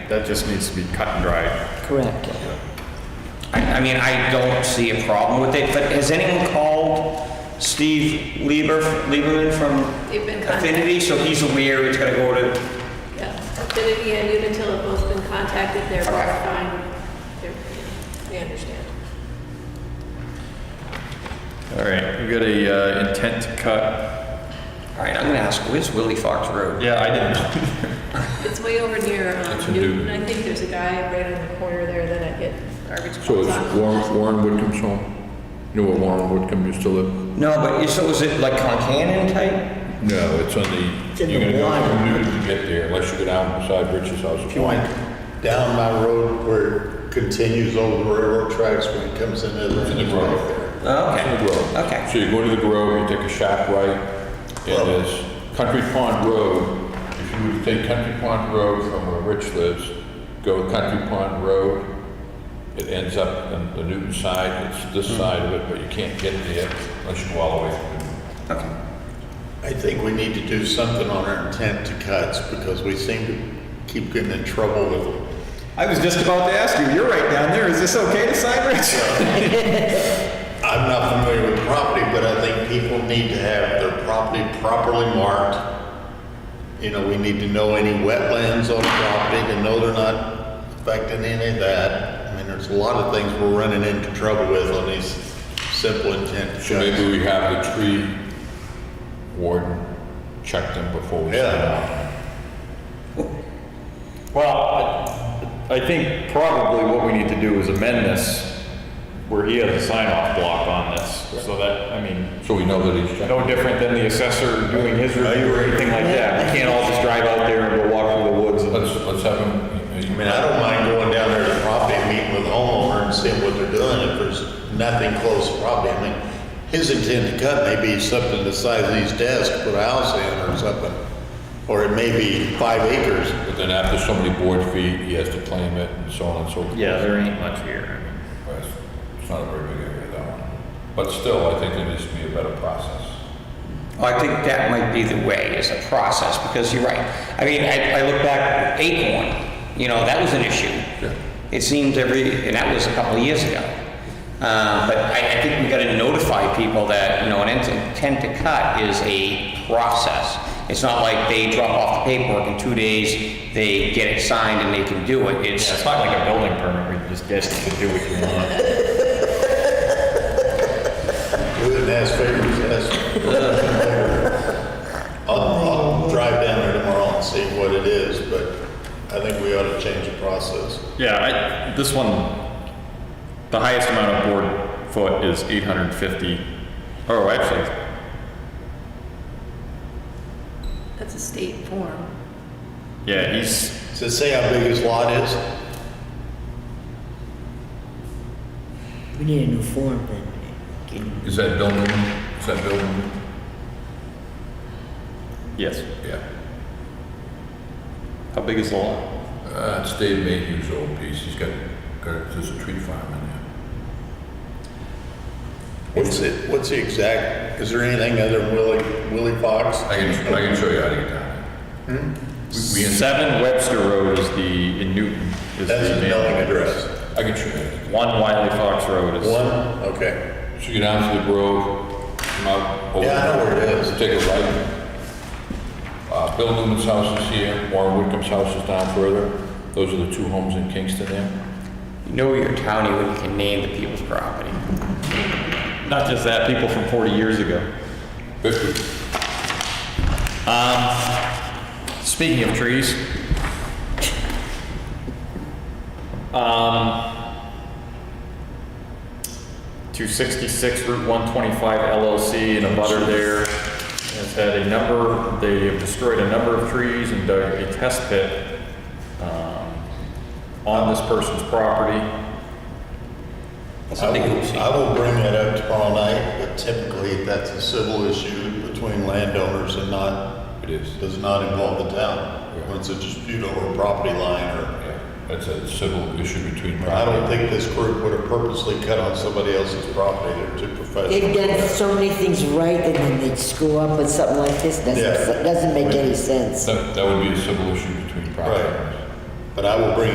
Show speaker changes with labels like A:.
A: That just needs to be cut and dried.
B: Correct.
C: I, I mean, I don't see a problem with it, but has anyone called Steve Lieber, Lieberman from
D: They've been
C: Affinity? So he's aware it's gonna go to,
D: Yeah, Affinity and Unitil have both been contacted, they're both fine, they're, they understand.
A: All right, we got a uh, intent to cut.
C: all right, I'm gonna ask, where's Willie Fox Road?
A: Yeah, I didn't.
D: It's way over near um,
E: It's a
D: Newton,
E: dude.
D: I think there's a guy right on the corner there that I get garbage
E: So
D: calls
E: it's
D: on.
E: Warren, Warren Whitcomb's home? You know where Warren Whitcomb used to live?
C: No, but, so is it like Concanon type?
E: No, it's on
F: It's
E: the,
F: in
E: you're
F: the
E: gonna go from
F: water.
E: Newton to get there, unless you go down beside Rich's house.
F: If you went down my road where it continues over the railroad tracks when it comes into the.
E: It's in the grove.
C: Oh,
E: In the
C: Okay,
E: grove.
C: okay.
E: So you go to the Grove, you take a shack right, and there's Country Pond Road. If you would take Country Pond Road from where Rich lives, go Country Pond Road, it ends up on the Newton side, it's
F: Hmm.
E: this side of it, but you can't get there unless you go all the way from Newton.
F: I think we need to do something on our intent to cuts because we seem to keep getting in trouble with them.
A: I was just about to ask you, you're right down there, is this okay to sign, Rich?
F: I'm not familiar with property, but I think people need to have their property properly marked. You know, we need to know any wetlands on property, to know they're not affecting any of that. I mean, there's a lot of things we're running into trouble with on these simple intent
E: So maybe
F: checks.
E: we have the tree warden check them before we sign
F: Yeah.
E: off.
A: Well, I think probably what we need to do is amend this, where he has a sign-off block on this, so that, I mean,
E: So we know that he's checked.
A: no different than the assessor doing his review or anything like that. We can't all just drive out there and go walk through the woods and
E: Let's, let's have him,
F: I mean, I don't mind going down there to the property, and meeting with the homeowner and seeing what they're doing, if there's nothing close to property. I mean, his intent to cut may be something the size of his desk, put a house in or something, or it may be five acres.
E: but then after so many board feet, he has to claim it and so on and so forth.
A: Yeah, there ain't much here.
E: Right, It's not a very big area, that one. But still, I think there needs to be a better process.
C: Well, I think that might be the way, is a process, because you're right. I mean, I, I look back, Acorn, you know, that was an issue. It seems every, and that was a couple of years ago. Uh, but I, I think we gotta notify people that, you know, an int- intent to cut is a process. It's not like they drop off the paperwork in two days, they get it signed and they can do it.
A: Yeah, it's
C: It's,
A: not like a building permit, where you just guess you can do what you want.
F: We wouldn't ask favors, ask. I'll, I'll drive down there tomorrow and see what it is, but I think we ought to change the process.
A: Yeah, I, this one, the highest amount of board foot is 850. Oh, actually,
D: That's a state form.
A: yeah, he's,
F: Does it say how big his lot is?
B: We need a new form then. Can-
E: Is that building, is that building?
A: yes.
E: Yeah.
A: How big is the lot?
E: Uh, it's Dave Mayhew's old piece, he's got, got, there's a tree farm in there.
F: What's it, what's the exact, is there anything other than Willie, Willie Fox?
E: I can, I can show you how to get down We- we in-
A: Seven Webster Road is the, in Newton is
F: That's
A: the
F: his mailing
A: name.
F: address.
E: there. I can show you.
A: One Wiley Fox Road is,
F: One, okay.
E: So you go down to the Grove, come out. over-
F: Yeah, I know where it is.
E: Take a right. Uh, Bill Newman's house is here, Warren Whitcomb's house is down further. Those are the two homes in Kingston there.
C: you know your townie when you can name the people's property.
A: not just that, people from 40 years ago.
E: Fifty.
A: Speaking of trees. Um, 266 Route 125 LLC and a butter there has had a number, they have destroyed a number of trees and dug a test pit um, on this person's property.
C: That's
F: I
C: a big
F: will, I will bring that up tomorrow night, but typically that's a civil issue between landowners and not,
E: It is.
F: does not involve the town. When it's a dispute over a property line or,
E: Yeah, That's a civil issue between.
F: I don't think this group would have purposely cut on somebody else's property. They're too
B: They've
F: professional.
B: done so many things right and then they screw up with something like this. Doesn't,
F: Yeah.
B: doesn't make any sense.
E: That, that would be a civil issue between property
F: Right.
E: owners.
F: But I will bring